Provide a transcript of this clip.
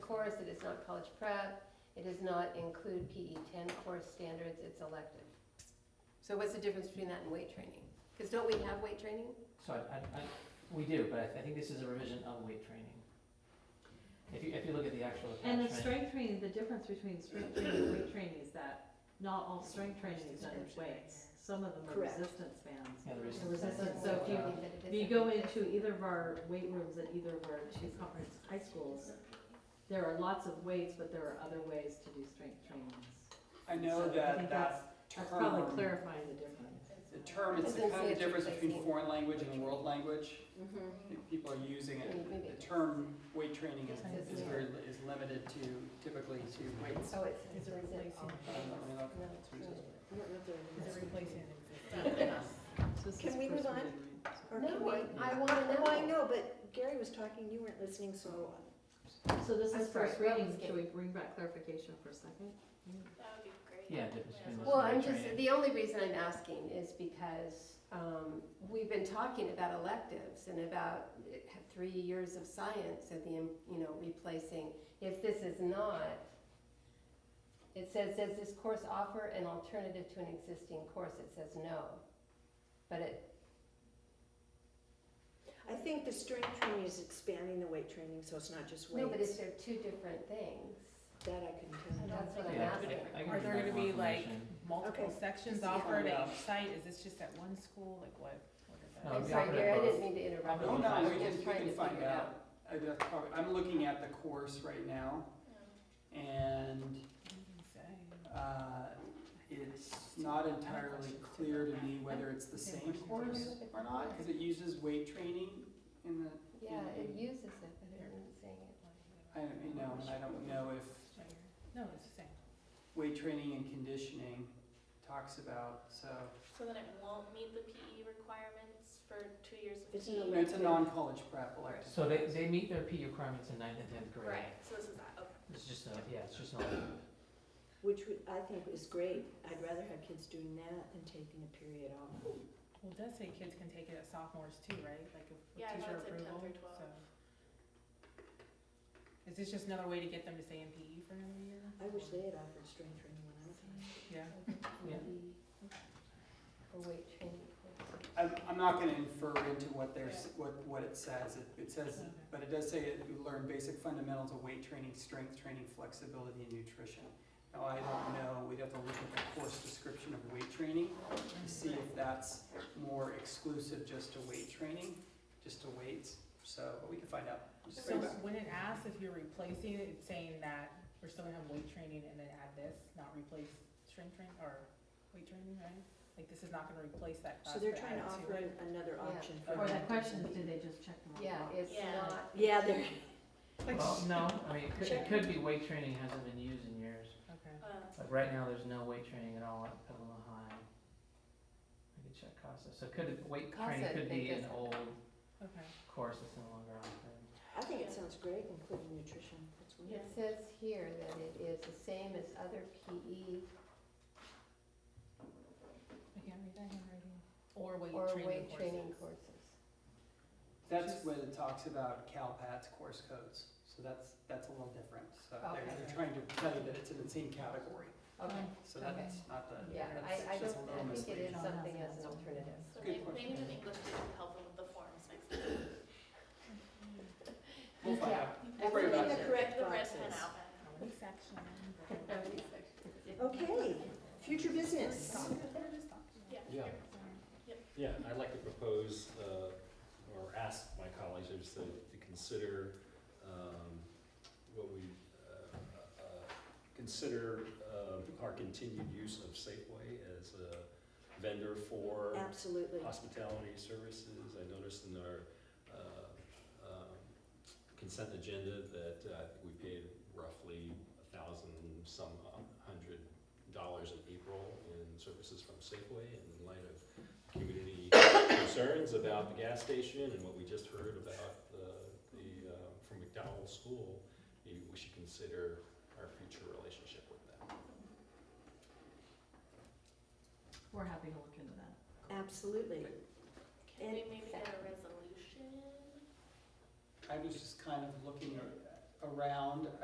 course, it is not college prep, it does not include PE ten course standards, it's elective. So what's the difference between that and weight training? Because don't we have weight training? So I, I, I, we do, but I, I think this is a revision of weight training. If you, if you look at the actual And the attachment, strength training, the difference between strength training and weight training is that not all strength training is done with weights. Some of them are Correct. resistance bands. yeah, the It reason. was says just- that so if Uh, you- that it If is you go something. into either of our weight rooms at either of our two conference high schools, there are lots of weights, but there are other ways to do strength trainings. I know So I that think that That's probably term, clarifying the difference. the term, it's Doesn't kind of say the it's difference replacing. between foreign language and world language. Mhm. I think People are using Maybe- maybe it, it the term weight training is, It says is here. very, li- is limited to, typically to weights. Oh, it's, it's a I don't know, I mean, that's No, what it says. So this is Can we first move on? reading, right? Or can No, we- I, I wanna know. No, I know, but Gary was talking, you weren't listening, so So this I'm is sorry, first where reading, was it? should we bring back clarification for a second? Yeah, difference between this Well, and I'm weight just, training. the only reason I'm asking is because um, we've been talking about electives and about eh, three years of science and the, im- you know, replacing. If this is not, it says, does this course offer an alternative to an existing course? It says no. But it, I think the strength training is expanding the weight training, so it's not just no, but it's, weights. they're two different things. That I couldn't tell. That's what I'm Yeah, asking. I can Are give there that gonna be, like, confirmation. multiple Okay. sections Yeah. offered at Yeah. each site, is this just at one school, like what, what is that? No, I'm we sorry, offered it Gary, I both. didn't mean to interrupt. Offered you. Oh, both no, sides. we I'm can, just we trying can to find figure it out. I, that's probably, I'm looking at the course right now, and What did it say? Uh, It's not entirely clear to me whether it's the same course or not, because it uses weight training in the, Yeah, it uses it, but it isn't saying I don't, you know, and I don't know if No, it's the same. weight training and conditioning talks about, so. So then it won't meet the PE requirements for two years of It's PE? an And It's a non-college prep elective. So they, they meet their PE requirements in ninth and tenth grade. Right, so this is that, okay. It's just, a- yeah, it's just not, Which would- I think is great. I'd rather have kids doing that than taking a period off. Well, it does say kids can take it at sophomores too, right, like if with Yeah, I thought teacher it said 10 approval, through 12. so. Is this just another way to get them to stay in PE for another year? I wish they had offered strength training when I was in school. Yeah. Yeah, A weight training course. I'm, I'm not gonna infer into what there's, what, what it says. It- It says, but it does say that you learn basic fundamentals of weight training, strength training, flexibility, and nutrition. Now, I don't know, we'd have to look at the course description of weight training. to see if that's more exclusive just to weight training, just to weights, so, but we can find out. Just so bring it back. when it asks if you're replacing it, it's saying that we're still gonna have weight training and then add this, not replace strength training or weight training, right? Like this is not gonna replace that class. So they're but trying to add it offer it. an- another Yeah. option. for Or the them. question is, do they just check them off? Yeah, it's Yeah. not. Yeah, they're, well, no, I mean, it could, it could be weight training hasn't been used in years. Okay. Uh, Like right now, there's no weight training at all at Petaluma High. I could check CASA, so could, it- weight training CASA, could they be an just- old Okay. course that's no longer offered. I think it sounds great, including nutrition. That's It wonderful. says here that it is the same as other E PE I can't read that handwriting. Or weight or training weight training courses. courses. That's when it talks about CalPATS course codes, so that's, that's a little different, so they're, Okay. they're trying to tell you that it's in the same category, Okay, so that's not the, yeah, that's I, I just a don't, I little think it misleading. is something as an alternative. So Good maybe, question. maybe just English didn't help them with the forms next time. We'll find Yeah. out, we'll bring it Everything back. that correct The red boxes. pen out. How many sections? Okay, future business. Yeah. Yeah, I'd like to propose, uh, or ask my colleagues, I just, uh, to consider, um, what we, uh, uh, consider, uh, our continued use of Safeway as a vendor for Absolutely. hospitality services. I noticed in our, uh, um, consent agenda that uh, I think we paid roughly a thousand, some hundred dollars in April in services from Safeway and in light of community concerns about the gas station and what we just heard about the, the, uh, from McDowell School, maybe we should consider our future relationship with them. We're happy to look into that. Absolutely. Can we maybe get a resolution? I was just kind of looking around,